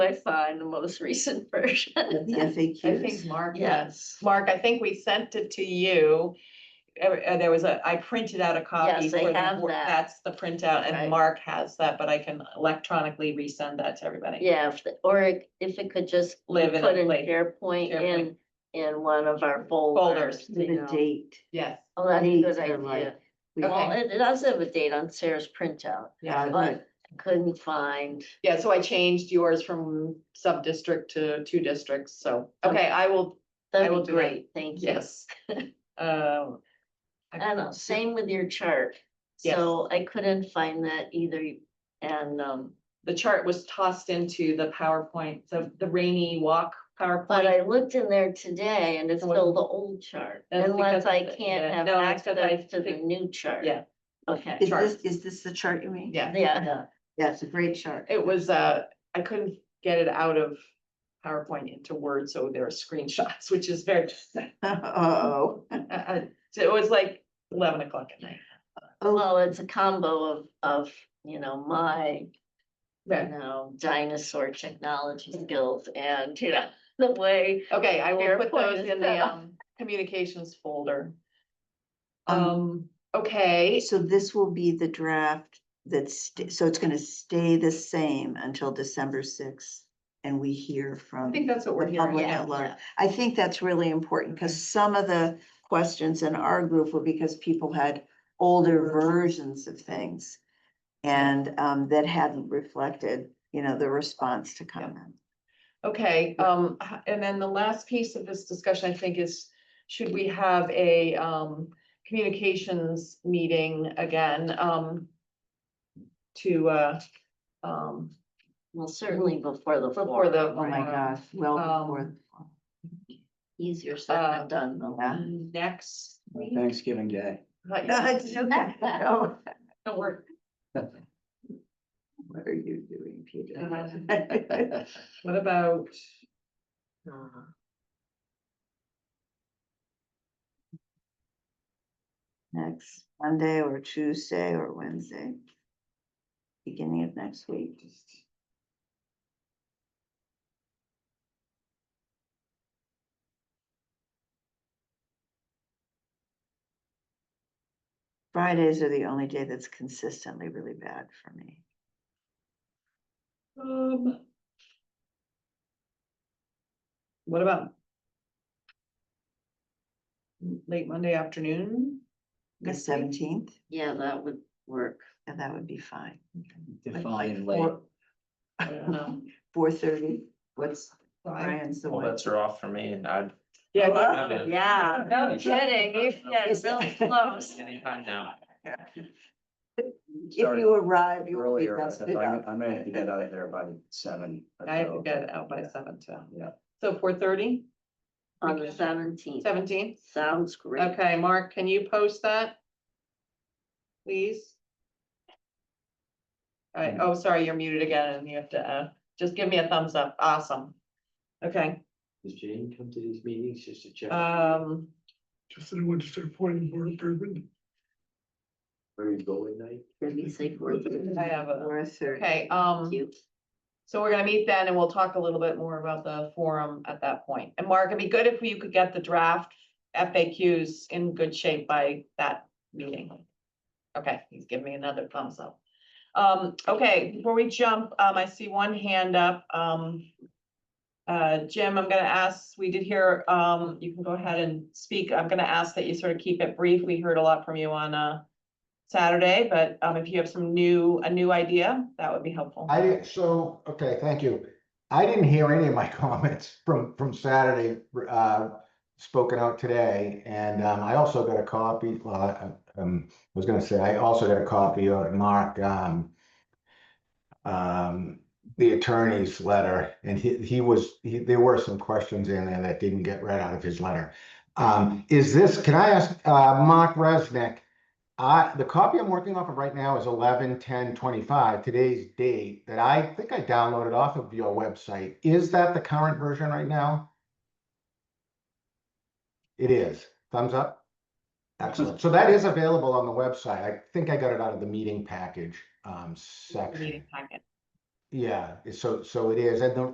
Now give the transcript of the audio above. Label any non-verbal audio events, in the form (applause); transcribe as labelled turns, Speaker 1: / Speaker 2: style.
Speaker 1: I saw in the most recent (laughs) version.
Speaker 2: With the
Speaker 3: I think
Speaker 2: FAQs.
Speaker 3: Mark,
Speaker 1: Yes.
Speaker 3: Mark, I think we sent it to you. Uh, uh, there was a, I printed out a copy.
Speaker 1: Yes, I
Speaker 3: for the
Speaker 1: have
Speaker 3: board.
Speaker 1: that.
Speaker 3: That's the printout
Speaker 1: Right.
Speaker 3: and Mark has that, but I can electronically resend that to everybody.
Speaker 1: Yeah, if the- or if it could just
Speaker 3: Live in
Speaker 1: put
Speaker 3: a
Speaker 1: in
Speaker 3: place.
Speaker 1: SharePoint in,
Speaker 3: SharePoint.
Speaker 1: in one of our
Speaker 3: Folders.
Speaker 1: folders.
Speaker 2: With
Speaker 1: you
Speaker 2: a
Speaker 1: know.
Speaker 2: date.
Speaker 3: Yes.
Speaker 1: Oh, that's a
Speaker 2: Dates
Speaker 1: good
Speaker 2: are
Speaker 1: idea.
Speaker 2: like- we-
Speaker 3: Okay.
Speaker 1: Well, it, it does have a date on Sarah's printout.
Speaker 3: Yeah.
Speaker 2: I
Speaker 1: But
Speaker 2: would.
Speaker 1: couldn't find,
Speaker 3: Yeah, so I changed yours from sub-district to two districts, so, okay, I will, I
Speaker 1: that'd
Speaker 3: will
Speaker 1: be
Speaker 3: do that.
Speaker 1: great, thank you.
Speaker 3: yes. Um. I-
Speaker 1: And uh, same with your chart.
Speaker 3: Yes.
Speaker 1: So I couldn't find that either. And, um,
Speaker 3: The chart was tossed into the PowerPoint, the, the rainy walk
Speaker 1: but
Speaker 3: PowerPoint.
Speaker 1: I looked in there today and it's
Speaker 3: It wasn't-
Speaker 1: still the old chart,
Speaker 3: That's
Speaker 1: unless
Speaker 3: because
Speaker 1: I
Speaker 3: of the-
Speaker 1: can't
Speaker 3: yeah,
Speaker 1: have
Speaker 3: no, that's 'cause I
Speaker 1: access to the
Speaker 3: think-
Speaker 1: new chart.
Speaker 3: Yeah.
Speaker 1: Okay,
Speaker 2: Is
Speaker 3: chart.
Speaker 2: this, is this the chart you mean?
Speaker 3: Yeah.
Speaker 1: yeah,
Speaker 2: Yeah, it's a great chart. (laughs)
Speaker 3: It was, uh, I couldn't get it out of PowerPoint into Word, so there are screenshots, (laughs) which is very,
Speaker 2: Uh-oh.
Speaker 3: uh, uh, so it was like eleven o'clock at night.
Speaker 2: Oh,
Speaker 1: well, it's a combo of, of, you know, my, you
Speaker 3: Right. Mm-hmm.
Speaker 1: know, dinosaur technology skills and, you know, the way.
Speaker 3: Okay, I will
Speaker 1: SharePoint
Speaker 3: put those
Speaker 1: is
Speaker 3: in the,
Speaker 1: better.
Speaker 3: um, communications folder.
Speaker 2: um,
Speaker 3: Um, okay,
Speaker 2: so this will be the draft that's, st- so it's gonna stay the same until December sixth. And we hear
Speaker 3: I
Speaker 2: from,
Speaker 3: think that's what we're
Speaker 2: The
Speaker 3: hearing.
Speaker 2: public
Speaker 3: yeah.
Speaker 2: at large. I think that's really important,
Speaker 3: Okay.
Speaker 2: because some of the questions in our group were because people had older versions of things. And um, that hadn't reflected, you know, the response to comment.
Speaker 3: Okay, um, h- and then the last piece of this discussion, I think, is should we have a, um, communications meeting again, um, to, uh, um,
Speaker 1: Well, certainly before the
Speaker 3: Mm-hmm. Before
Speaker 1: forum.
Speaker 3: the-
Speaker 2: Oh my
Speaker 3: Right.
Speaker 2: gosh, well
Speaker 3: Um,
Speaker 2: before.
Speaker 1: Easier said than
Speaker 3: Uh,
Speaker 1: done, though.
Speaker 2: (laughs)
Speaker 3: (laughs)
Speaker 2: yeah.
Speaker 3: next week?
Speaker 4: Thanksgiving Day.
Speaker 3: Not yet.
Speaker 2: Oh,
Speaker 3: Don't worry.
Speaker 2: What are you doing, Peter?
Speaker 3: (laughs)
Speaker 4: Uh,
Speaker 3: What about?
Speaker 1: Uh,
Speaker 2: Next Monday or Tuesday or Wednesday? Beginning of next week. Fridays are the only day that's consistently really bad for me.
Speaker 3: um, What about? Late Monday afternoon?
Speaker 2: The
Speaker 3: Next week?
Speaker 2: seventeenth,
Speaker 1: Yeah, that would work.
Speaker 2: and that would be fine.
Speaker 4: Define late.
Speaker 3: I
Speaker 2: (laughs)
Speaker 3: don't know.
Speaker 2: Four thirty, what's
Speaker 3: Five.
Speaker 2: Brian's the
Speaker 5: Well,
Speaker 2: one?
Speaker 5: that's are off for me and I'd.
Speaker 3: (laughs) Yeah,
Speaker 5: Wow.
Speaker 3: good.
Speaker 1: Yeah,
Speaker 5: no
Speaker 1: kidding, you- yeah, it's really
Speaker 3: (laughs)
Speaker 1: close.
Speaker 5: Anytime now.
Speaker 2: If you arrive, you will be
Speaker 4: Earlier, I
Speaker 2: busted
Speaker 4: think I
Speaker 2: up.
Speaker 4: I may have to get out of there by seven. or
Speaker 3: I have to
Speaker 4: so.
Speaker 3: get out by seven, so.
Speaker 4: Yeah.
Speaker 3: So four thirty,
Speaker 1: on the seventeenth.
Speaker 3: seventeen?
Speaker 1: Sounds great.
Speaker 3: Okay, Mark, can you post that? Please? All right, oh, sorry, you're muted again and you have to, uh, just give me a thumbs up. Awesome. Okay,
Speaker 4: Does Jane come to these meetings just to check?
Speaker 3: um,
Speaker 6: Just that I wanted to appoint a board Bourbon.
Speaker 4: Where you go at night?
Speaker 1: Did we say four thirty?
Speaker 3: I have a,
Speaker 2: Four thirty.
Speaker 3: okay, um,
Speaker 1: You
Speaker 3: so we're gonna meet then and we'll talk a little bit more about the forum at that point. And Mark, it'd be good if you could get the draft FAQs in good shape by that meeting. Okay, he's giving me another thumbs up. Um, okay, before we jump, um, I see one hand up, um. Uh, Jim, I'm gonna ask, we did hear, um, you can go ahead and speak. I'm gonna ask that you sort of keep it brief. We heard a lot from you on, uh. Saturday, but, um, if you have some new, a new idea, that would be helpful.
Speaker 7: I, didn't- so, okay, thank you. I didn't hear any of my (laughs) comments from, from Saturday, uh, spoken out today, and, um, I also got a copy, well, I, um, I was gonna say, I also got a copy of Mark, um, um, the attorney's letter, and he, he was, he, there were some questions in there that didn't get read out of his letter. Um, is this, can I ask, uh, Mark Resnick, I, the copy I'm working off of right now is eleven, ten, twenty-five, today's date, that I think I downloaded off of your website. Is that the current version right now? It is. Thumbs up? Excellent. So that is available on the website. I think I got it out of the meeting package, um, section.
Speaker 3: Meeting packet.
Speaker 7: Yeah, so, so it is. And the,